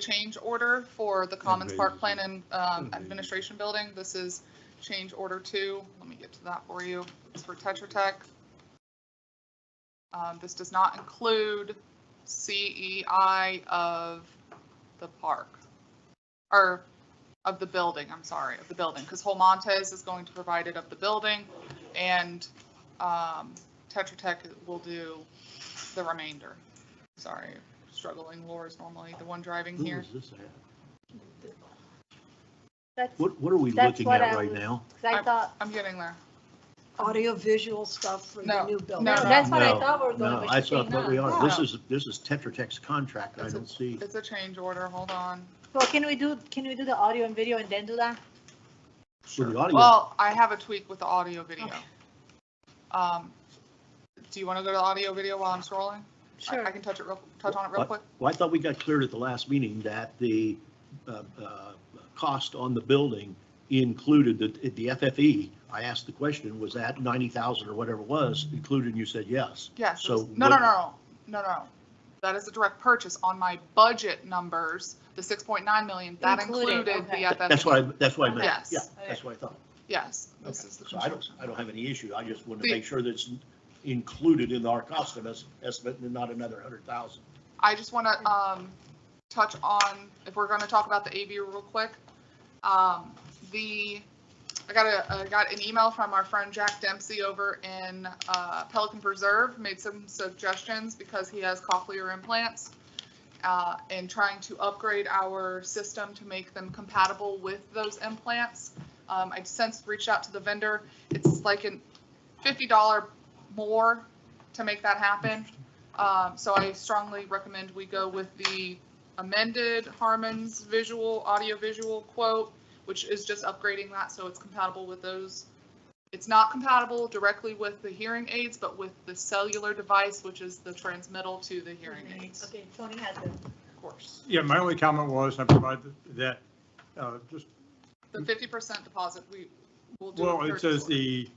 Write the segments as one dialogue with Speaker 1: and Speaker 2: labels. Speaker 1: change order for the Commons
Speaker 2: raise
Speaker 1: Park
Speaker 2: it.
Speaker 1: Plan and um,
Speaker 2: And raise it.
Speaker 1: Administration Building. This is change order two. Let me get to that for you. It's for Tetra Tech. Um, This does not include CEI of the park, or of the building, I'm sorry, of the building, because Holmontes is going to provide it of the building, and um, Tetra Tech will do the remainder. Sorry, struggling, Laura's normally the one driving
Speaker 2: Who
Speaker 1: here.
Speaker 2: is this at?
Speaker 3: That's,
Speaker 2: What, what are we
Speaker 3: That's
Speaker 2: looking
Speaker 3: what
Speaker 2: at
Speaker 3: I
Speaker 2: right
Speaker 3: was-
Speaker 2: now?
Speaker 3: 'cause I thought,
Speaker 1: I'm getting there.
Speaker 4: audiovisual stuff for the
Speaker 1: No,
Speaker 4: new building.
Speaker 1: no,
Speaker 3: no, that's what I
Speaker 2: No,
Speaker 3: thought we were
Speaker 2: No,
Speaker 3: going
Speaker 2: I
Speaker 3: with
Speaker 2: thought,
Speaker 3: Shane
Speaker 2: but we
Speaker 3: Knox.
Speaker 2: are, this
Speaker 1: Yeah.
Speaker 2: is, this is Tetra Tech's contract, I
Speaker 1: That's
Speaker 2: don't see.
Speaker 1: It's a change order, hold on.
Speaker 3: So can we do, can we do the audio and video and then do that?
Speaker 2: With the audio,
Speaker 1: Well, I have a tweak with the audio video. Um, Do you want to go to the audio video while I'm scrolling? I- I
Speaker 3: Sure.
Speaker 1: can touch it real, touch on it real
Speaker 2: What?
Speaker 1: quick.
Speaker 2: well, I thought we got cleared at the last meeting that the, uh, uh, cost on the building included the, the FFE. I asked the question, was that ninety thousand or whatever it was included, and you said yes.
Speaker 1: Yes,
Speaker 2: So
Speaker 1: it's- no, no,
Speaker 2: what-
Speaker 1: no, no, no, no. That is a direct purchase on my budget numbers, the 6.9 million, that
Speaker 3: Included,
Speaker 1: included the
Speaker 3: okay.
Speaker 1: FF.
Speaker 2: That's what I, that's what I meant,
Speaker 1: Yes.
Speaker 2: yeah, that's what I thought.
Speaker 1: Yes, this
Speaker 2: Okay.
Speaker 1: is the
Speaker 2: So I don't,
Speaker 1: construction.
Speaker 2: I don't have any issue, I just wanted
Speaker 1: The-
Speaker 2: to make sure that it's included in our cost es- estimate and not another hundred thousand.
Speaker 1: I just want to, um, touch on, if we're going to talk about the AV real quick. Um, the, I got a, I got an email from our friend Jack Dempsey over in, uh, Pelican Preserve, made some suggestions because he has cochlear implants. Uh, and trying to upgrade our system to make them compatible with those implants. Um, I since reached out to the vendor. It's like a fifty dollar more to make that happen. Um, so I strongly recommend we go with the amended Harmon's visual, audio visual quote, which is just upgrading that so it's compatible with those. It's not compatible directly with the hearing aids, but with the cellular device, which is the transmittal to the hearing aids,
Speaker 3: Okay, Tony has it.
Speaker 1: of course.
Speaker 5: Yeah, my only comment was, and I provided that, uh, just,
Speaker 1: The fifty percent deposit, we will do. a
Speaker 5: well, it
Speaker 1: purchase
Speaker 5: says
Speaker 1: order.
Speaker 5: the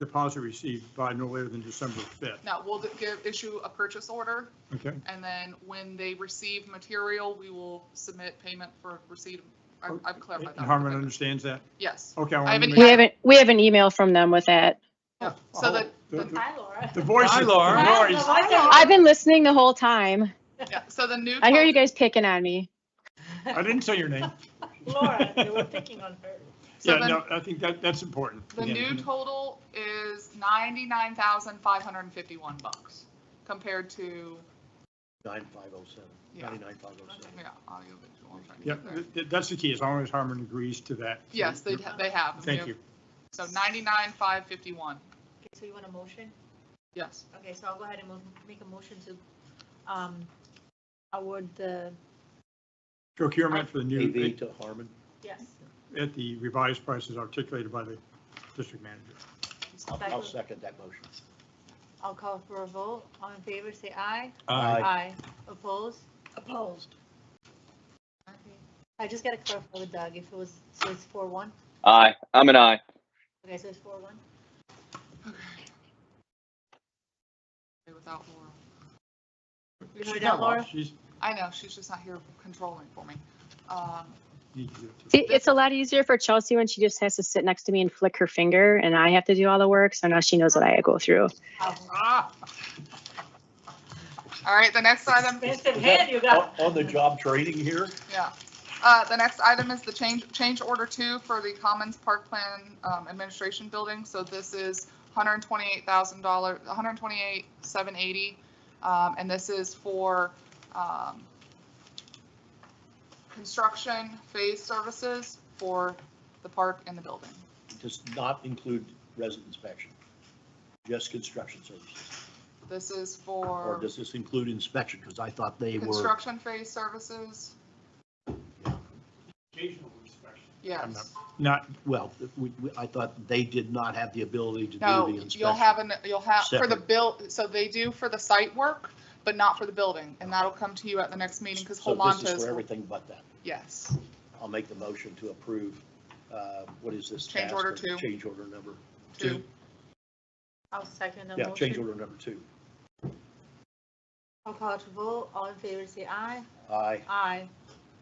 Speaker 5: deposit received by no later than December 5th,
Speaker 1: No, we'll d- give, issue a purchase order,
Speaker 5: okay?
Speaker 1: and then when they receive material, we will submit payment for receipt. I- I've clarified that.
Speaker 5: And Oh, Harmon oh, understands that?
Speaker 1: Yes.
Speaker 5: Okay. I
Speaker 1: I
Speaker 5: wanted
Speaker 1: haven't-
Speaker 5: to make-
Speaker 6: We have, an we have an email from them with that.
Speaker 1: Yeah,
Speaker 5: Oh,
Speaker 1: So that,
Speaker 5: the-
Speaker 1: the-
Speaker 5: the-
Speaker 3: Hi, Laura.
Speaker 5: The voice.
Speaker 7: Hi,
Speaker 5: is-
Speaker 7: Laura.
Speaker 5: the
Speaker 3: Hi,
Speaker 5: voice-
Speaker 3: Laura.
Speaker 6: I've been listening the whole time.
Speaker 1: yeah, so the new.
Speaker 6: I hear you
Speaker 1: total-
Speaker 6: guys picking on me.
Speaker 5: I didn't say your name.
Speaker 3: Laura, they were picking on her.
Speaker 1: so
Speaker 5: Yeah,
Speaker 1: the-
Speaker 5: no, I think that, that's important.
Speaker 1: The
Speaker 5: Yeah.
Speaker 1: new total is ninety-nine thousand five hundred and fifty-one bucks compared to,
Speaker 2: Nine five oh seven,
Speaker 1: Yeah.
Speaker 2: ninety-nine five oh seven.
Speaker 1: yeah, audio visual. I'm trying to
Speaker 5: Yeah,
Speaker 1: get there.
Speaker 5: th- th- that's the key, as long as Harmon agrees to that.
Speaker 1: Yes, they, ha- they have.
Speaker 5: Thank you.
Speaker 1: So ninety-nine five fifty-one,
Speaker 3: Okay, So you want a motion?
Speaker 1: yes.
Speaker 3: Okay, so I'll go ahead and mo- make a motion to, um, award the,
Speaker 5: Procurement for the
Speaker 2: AV
Speaker 5: new,
Speaker 2: to Harmon,
Speaker 3: yes.
Speaker 5: at the revised prices articulated by the district manager.
Speaker 2: I'll, I'll
Speaker 3: I'll
Speaker 2: second that motion.
Speaker 3: call for a vote. All in favor, say aye.
Speaker 2: Aye.
Speaker 3: Aye. Opposed?
Speaker 4: Opposed.
Speaker 3: I just got to clarify with Doug, if it was, so it's four one?
Speaker 7: Aye, I'm an aye.
Speaker 3: Okay, so it's four one?
Speaker 1: Okay, Without Laura.
Speaker 3: She's not
Speaker 5: She's not-
Speaker 3: Laura.
Speaker 5: She's,
Speaker 1: I know, she's just not here controlling for me. Um,
Speaker 5: needs to do it too.
Speaker 6: It- It's a lot easier for Chelsea when she just has to sit next to me and flick her finger and I have to do all the work. So now she knows what I go through.
Speaker 1: ah. All right, the next item
Speaker 3: Expensive
Speaker 2: Is
Speaker 3: hand
Speaker 2: that
Speaker 3: you
Speaker 2: on,
Speaker 3: got.
Speaker 2: on the job training here?
Speaker 1: Yeah. Uh, The next item is the change, change order two for the Commons Park Plan um, Administration Building. So this is $128,000, $128,780. um, And this is for um, construction phase services for the park and the building.
Speaker 2: Does not include resident inspection, just construction services.
Speaker 1: This is
Speaker 2: Or
Speaker 1: for
Speaker 2: does this include inspection? Because I thought they were,
Speaker 1: construction phase services.
Speaker 5: Occasional inspection. I'm
Speaker 1: Yes.
Speaker 5: Not,
Speaker 2: well, we, we- I thought they did not have the ability to do the
Speaker 1: No,
Speaker 2: inspection.
Speaker 1: you'll have, an you'll have, for the
Speaker 2: Separate.
Speaker 1: bill, so they do for the site work, but not for the building, and that'll come to you at the next meeting, because
Speaker 2: So this is for
Speaker 1: Holmontes,
Speaker 2: everything but that.
Speaker 1: yes,
Speaker 2: I'll make the motion to approve, uh, what is this?
Speaker 1: Change
Speaker 2: task
Speaker 1: order
Speaker 2: or
Speaker 1: two.
Speaker 2: Change order number,
Speaker 1: two.
Speaker 3: I'll second the
Speaker 2: yeah, change
Speaker 3: motion.
Speaker 2: order number two.
Speaker 3: I'll call to vote. All in favor, say aye.
Speaker 2: Aye.
Speaker 3: Aye.